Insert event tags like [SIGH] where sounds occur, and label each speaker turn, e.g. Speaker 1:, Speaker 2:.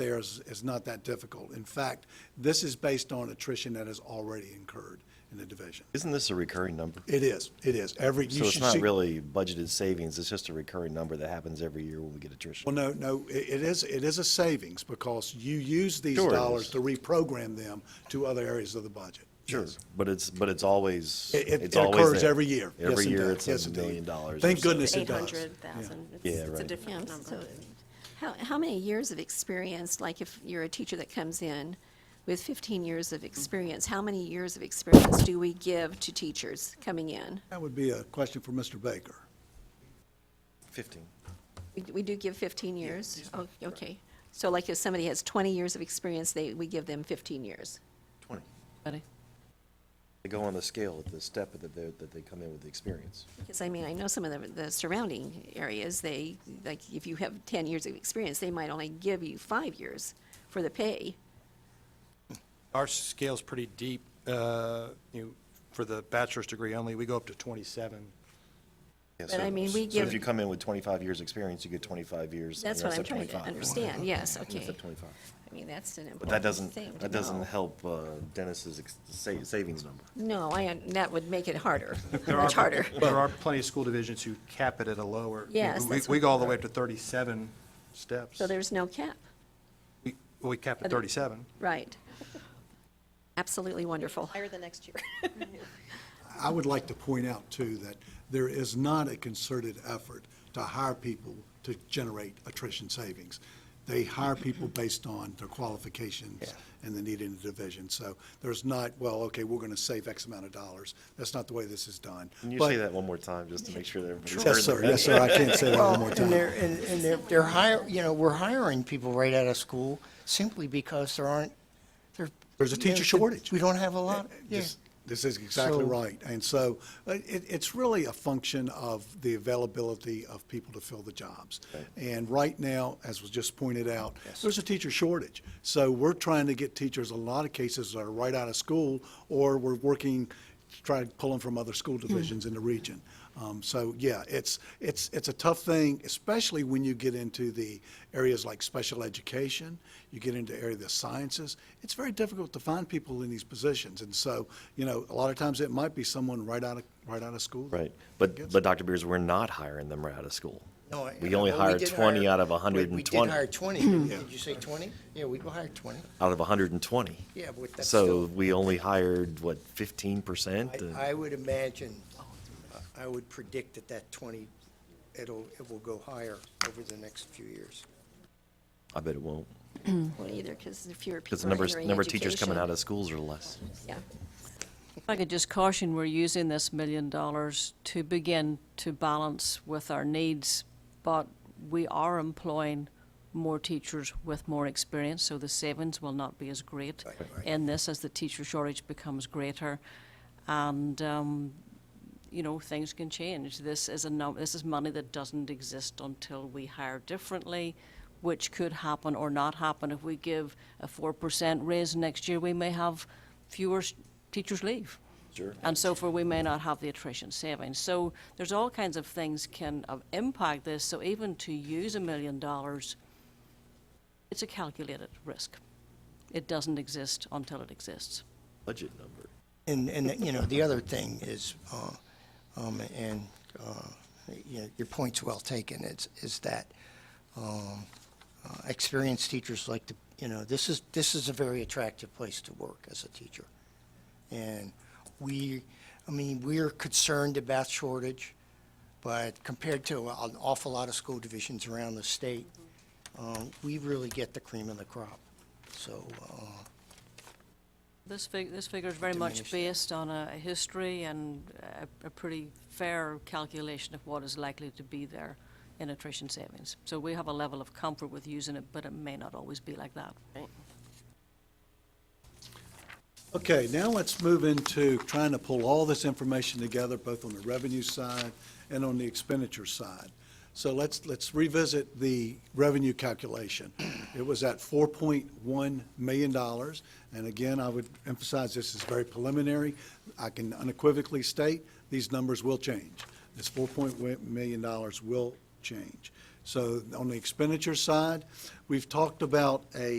Speaker 1: theirs is not that difficult. In fact, this is based on attrition that has already incurred in the division.
Speaker 2: Isn't this a recurring number?
Speaker 1: It is, it is. Every, you
Speaker 2: So it's
Speaker 1: should
Speaker 2: not
Speaker 1: see.
Speaker 2: really budgeted savings, it's just a recurring number that happens every year when we get
Speaker 1: Well,
Speaker 2: attrition.
Speaker 1: no, no, i- it is, it is a savings because you use these
Speaker 2: Sure it
Speaker 1: dollars
Speaker 2: is.
Speaker 1: to reprogram them to other areas of the budget.
Speaker 2: Sure,
Speaker 1: Yes.
Speaker 2: but it's, but it's always,
Speaker 1: It, it-
Speaker 2: it's
Speaker 1: it
Speaker 2: always
Speaker 1: occurs
Speaker 2: there.
Speaker 1: every year. Yes,
Speaker 2: Every
Speaker 1: indeed.
Speaker 2: year, it's
Speaker 1: Yes,
Speaker 2: a
Speaker 1: indeed.
Speaker 2: million dollars. or
Speaker 1: Thank
Speaker 2: so.
Speaker 1: goodness it
Speaker 3: Eight
Speaker 1: does.
Speaker 3: hundred thousand.
Speaker 2: Yeah,
Speaker 3: It's a
Speaker 2: right.
Speaker 3: different
Speaker 4: Yeah, so
Speaker 3: number.
Speaker 4: How, how many years of experience, like if you're a teacher that comes in with 15 years of experience, how many years of experience do we give to teachers coming in?
Speaker 1: That would be a question for Mr. Baker.
Speaker 2: Fifteen.
Speaker 4: We, we do give 15 years? Oh, okay. So like if somebody has 20 years of experience, they, we give them 15 years?
Speaker 2: Twenty.
Speaker 5: Buddy.
Speaker 2: They go on the scale at the step that they, that they come in with the experience.
Speaker 4: Because I mean, I know some of the, the surrounding areas, they, like if you have 10 years of experience, they might only give you five years for the pay.
Speaker 6: Our scale's pretty deep, uh, you, know, for the bachelor's degree only, we go up to 27.
Speaker 2: Yeah,
Speaker 4: But
Speaker 2: so-
Speaker 4: I mean, we
Speaker 2: So if
Speaker 4: give-
Speaker 2: you come in with twenty-five years' experience, you get twenty-five years. and
Speaker 4: That's
Speaker 2: you're
Speaker 4: what I'm
Speaker 2: at
Speaker 4: trying to
Speaker 2: 25.
Speaker 4: understand, yes, okay.
Speaker 2: You're at twenty-five.
Speaker 4: I mean, that's an
Speaker 2: But that
Speaker 4: important thing
Speaker 2: doesn't,
Speaker 4: to
Speaker 2: that doesn't
Speaker 4: know.
Speaker 2: help uh, Dennis's ex- sa- savings number.
Speaker 4: No, I, un- that would make it harder,
Speaker 6: [LAUGHS] There
Speaker 4: much
Speaker 6: are-
Speaker 4: harder.
Speaker 6: There are plenty of school divisions who cap it at a lower. you know,
Speaker 4: Yes,
Speaker 6: we-
Speaker 4: that's
Speaker 6: We
Speaker 4: what-
Speaker 6: go all the way up to 37 steps.
Speaker 4: So there's no cap,
Speaker 6: We- We cap at
Speaker 4: Other-
Speaker 6: 37.
Speaker 4: right. Absolutely wonderful.
Speaker 7: higher the next year. [LAUGHS]
Speaker 1: I would like to point out too that there is not a concerted effort to hire people to generate attrition savings. They hire people based on their qualifications and the need in the division. So there's not, well, okay, we're going to save X amount of dollars. That's not the way this is done.
Speaker 2: Can you
Speaker 1: But-
Speaker 2: say that one more time, just to make sure that everybody's heard
Speaker 1: Yes, sir. Yes, sir. I can't say that one more
Speaker 8: And they're,
Speaker 1: time.
Speaker 8: and, and they're, they're hiring, you know, we're hiring people right out of school simply because there aren't, there.
Speaker 1: There's a
Speaker 8: you know,
Speaker 1: teacher shortage.
Speaker 8: We don't have a lot, yeah.
Speaker 1: This- This is exactly
Speaker 8: So-
Speaker 1: right. And so uh, it, it's really a function of the availability of people to fill the jobs. And right now, as was just pointed out, there's a teacher shortage. So we're trying to get teachers, a lot of cases that are right out of school, or we're working, to try to pull them from other school
Speaker 2: Hmm.
Speaker 1: divisions in the region. Um, so yeah, it's, it's, it's a tough thing, especially when you get into the areas like special education, you get into area of the sciences. It's very difficult to find people in these positions. And so, you know, a lot of times it might be someone right out of, right out of school.
Speaker 2: Right, but, but Dr. Beers, we're not hiring them right out of school.
Speaker 8: No, I-
Speaker 2: We only
Speaker 8: well,
Speaker 2: hire
Speaker 8: did
Speaker 2: twenty
Speaker 8: hire-
Speaker 2: out of
Speaker 8: we-
Speaker 2: hundred and
Speaker 8: We
Speaker 2: twenty,
Speaker 8: did hire
Speaker 2: out
Speaker 8: twenty, didn't- did you say twenty? Yeah, we go hire twenty.
Speaker 2: of hundred and twenty.
Speaker 8: Yeah, but that's
Speaker 2: So
Speaker 8: still-
Speaker 2: we only hired, what, fifteen percent?
Speaker 8: I, I would imagine, uh, I would predict that that twenty, it'll, it will go higher over the next few years.
Speaker 2: I bet it won't,
Speaker 4: Well, either, because there are fewer people
Speaker 2: because the numbers,
Speaker 4: entering
Speaker 2: number of teachers coming out
Speaker 4: education.
Speaker 2: of schools are less.
Speaker 4: Yeah.
Speaker 5: If I could just caution, we're using this million dollars to begin to balance with our needs, but we are employing more teachers with more experience, so the savings will not be as great in this as the teacher shortage becomes greater. And, um, you know, things can change. This is a num- this is money that doesn't exist until we hire differently, which could happen or not happen. If we give a four percent raise next year, we may have fewer s- teachers leave. Sure. And so forth, we may not have the attrition savings. So there's all kinds of things can uh, impact this. So even to use a million dollars, it's a calculated risk. It doesn't exist until it exists.
Speaker 2: Budget number.
Speaker 8: And, and, you know, the other thing is, uh, um, and, uh, you know, your point's well taken, is, is that, um, uh, experienced teachers like to, you know, this is, this is a very attractive place to work as a teacher. And we, I mean, we're concerned about shortage, but compared to an awful lot of school divisions around the state, um, we really get the cream of the crop. So, uh,
Speaker 5: This fig, this figure is very much
Speaker 8: Diminished.
Speaker 5: based on a a history and a, a pretty fair calculation of what is likely to be there in attrition savings. So we have a level of comfort with using it, but it may not always be like that.
Speaker 1: Okay, now let's move into trying to pull all this information together, both on the revenue side and on the expenditure side. So let's, let's revisit the revenue calculation. It was at four point one million dollars, and again, I would emphasize this is very preliminary. I can unequivocally state, these numbers will change. This four point one million dollars will change. So on the expenditure side, we've talked about a